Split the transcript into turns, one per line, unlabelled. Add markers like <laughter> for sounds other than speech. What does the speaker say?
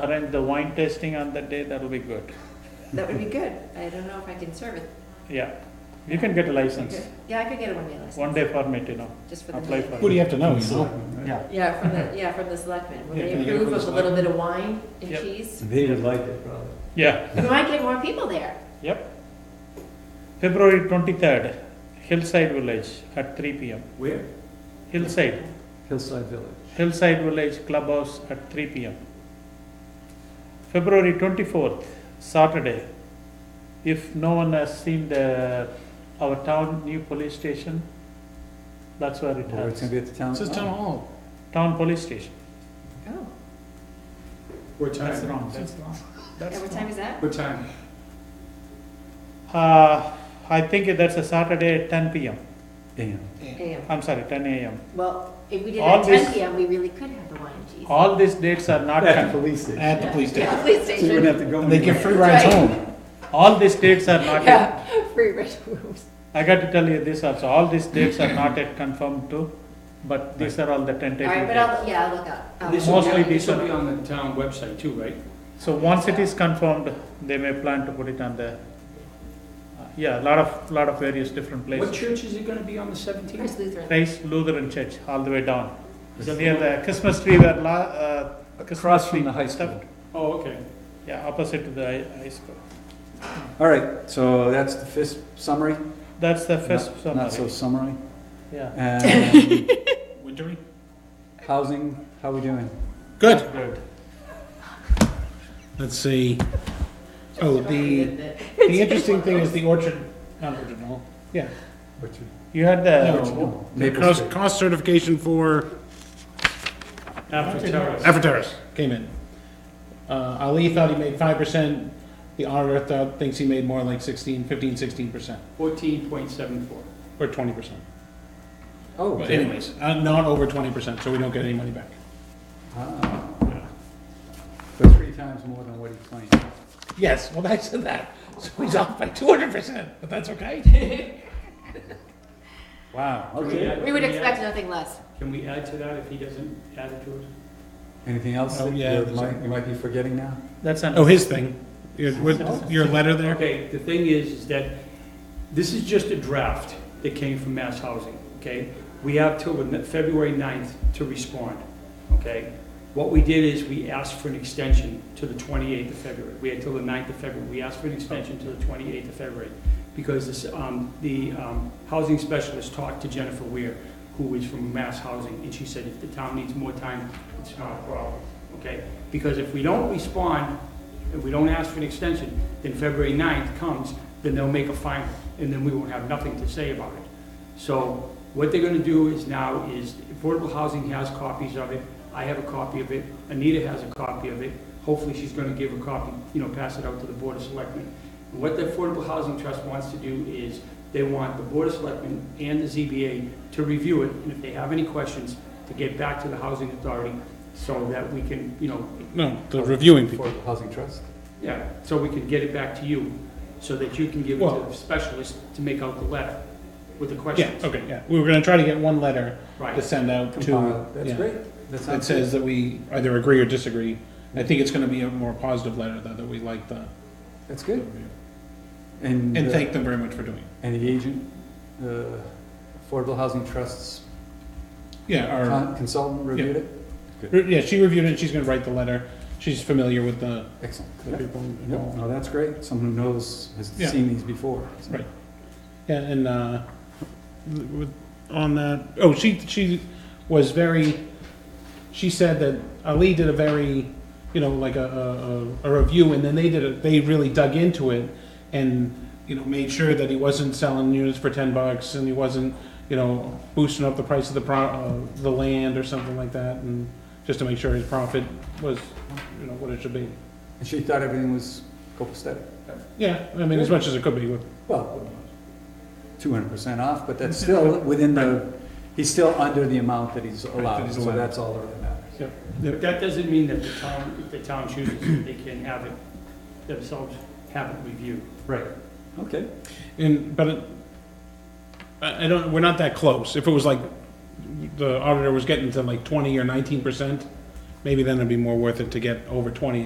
arrange the wine tasting on that day, that'll be good.
That would be good. I don't know if I can serve it.
Yeah, you can get a license,
Okay. Yeah, I could get a one-day license.
one day permit, you know,
Just for the.
apply
day.
for
What do you
it.
have to know, you know? Yeah.
Yeah, from the, yeah, from the selectmen. When
Yeah,
they
can you get it
approve
from
of a
the
little bit of wine and
Yep.
cheese,
They would like it, probably.
Yeah,
we might get more people there.
yep. February twenty-third, Hillside Village at three P M.
Where?
Hillside,
Hillside Village.
Hillside Village Clubhouse at three P M. February twenty-fourth, Saturday. If no one has seen the, our town new police station, that's where it
Or Oh, it's gonna
has,
be at the town.
This is town hall.
town police station,
Oh,
What time?
that's wrong, that's wrong.
yeah,
That's
what time is that?
What time?
Uh, I think that's a Saturday at ten PM.
Damn.
AM.
I'm sorry, ten AM.
Well, if we did it
All
at ten
this-
PM, we really could have the wine and cheese.
All these dates are not,
At the
con-
police station.
At the police station.
Yeah, <laughs> police
So you wouldn't have
station.
to go.
And they give
anywhere.
free rides
Right.
home.
all these dates are not, yet-
Yeah, free red rooms.
I got to tell you this also, all these dates are not yet confirmed too, but these are all the
All
tentative
right, but
dates.
I'll, yeah, I'll look up. I'll
This
look
will
up.
be-
Mostly these
This will
are-
be on the town website too, right?
So once it is confirmed, they may plan to put it on the, uh, yeah, lot of, lot of various different
What
places.
church is it gonna be on the
First
seventeenth?
Lutheran.
Christ Lutheran Church, all the way down. So near the Christmas tree where la, uh. Christmas
Across from
tree
the high
stuff.
school.
Oh, okay.
Yeah, opposite to the high- high school.
All right, so that's the fist summary.
That's the first
Not- Not so
summary,
summary.
yeah.
And
<laughs>
We're doing
housing, how we doing?
Oh, Good.
Good.
Let's see.
<laughs>
Oh, the,
Good.
the interesting thing is the orchard, not orchard hall. Yeah.
You had
Yeah,
the
Orchard Hall. The
Maple
cost,
Street. Oh,
cost certification for
after terrace.
Afteris came in. Uh, Ali thought he made five percent. The auditor thought, thinks he made more like 16, 15, 16 percent,
Fourteen point seven four.
or twenty percent.
Oh,
But
damn.
anyways, uh, not over twenty percent, so we don't get any money back.
Ah. So three times more than what he claimed.
Yes, well, I said <laughs> that. So he's off by two hundred percent, but that's okay. <laughs>
Wow, okay.
<laughs> We would expect nothing less.
Can we add to that if he doesn't add it to us?
Anything else
Oh,
that
yeah,
you
there's
might, you might be forgetting now?
That's an.
Oh, his thing, your, with your letter there.
Okay, the thing is, is that this is just a draft that came from Mass Housing, okay? We have till the ne- February 9th to respond, okay? What we did is we asked for an extension to the 28th of February. We had till the 9th of February. We asked for an extension to the 28th of February because this, um, the, um, housing specialist talked to Jennifer Weir, who is from Mass Housing, and she said if the town needs more time, it's not a problem, okay? Because if we don't respond, and we don't ask for an extension, then February 9th comes, then they'll make a final, and then we won't have nothing to say about it. So what they're gonna do is now is, affordable housing has copies of it, I have a copy of it, Anita has a copy of it, hopefully she's gonna give a copy, you know, pass it out to the Board of Selectmen. And What the Affordable Housing Trust wants to do is, they want the Board of Selectmen and the ZBA to review it, and if they have any questions, to get back to the Housing Authority, so that we can, you know,
No, the reviewing people.
Affordable Housing Trust?
yeah, so we can get it back to you, so that you can give it to
Well-
the specialist to make out the letter with the
Yeah,
questions.
okay, yeah. We were gonna try to get one letter to
Right,
send out to.
Compile. That's
yeah.
great. That
It
sounds good.
says that we either agree or disagree. I think it's gonna be a more positive letter, though, that we like the,
That's
the
good.
review.
And,
and
uh,
thank them very much for doing it.
and the agent, uh, Affordable Housing Trust's
Yeah, our,
con- consultant reviewed it?
yeah, she reviewed it, she's gonna write the letter. She's familiar with the
Excellent.
the people
Yep,
involved.
no, that's great, someone who knows, has
Yeah.
seen these before. so.
Right. Yeah, and, uh, with, on that, oh, she, she was very, she said that Ali did a very, you know, like a, a, a a review, and then they did, a they really dug into it and, you know, made sure that he wasn't selling units for ten bucks and he wasn't, you know, boosting up the price of the pro, uh, the land or something like that, and just to make sure his profit was, you know, what it should be.
And she thought everything was copacetic.
Yeah, I mean, as much as it could be with
Well, two hundred percent off, but that's still within the, he's still under the amount that he's
that
allowed,
he's
so
allowed.
that's all that really matters.
but that doesn't mean that the town, if the town chooses, that they can have it themselves, have it reviewed.
Right. Okay,
And, but, it- I, I don't, we're not that close. If it was like, the auditor was getting to like twenty or nineteen percent, maybe then it'd be more worth it to get over twenty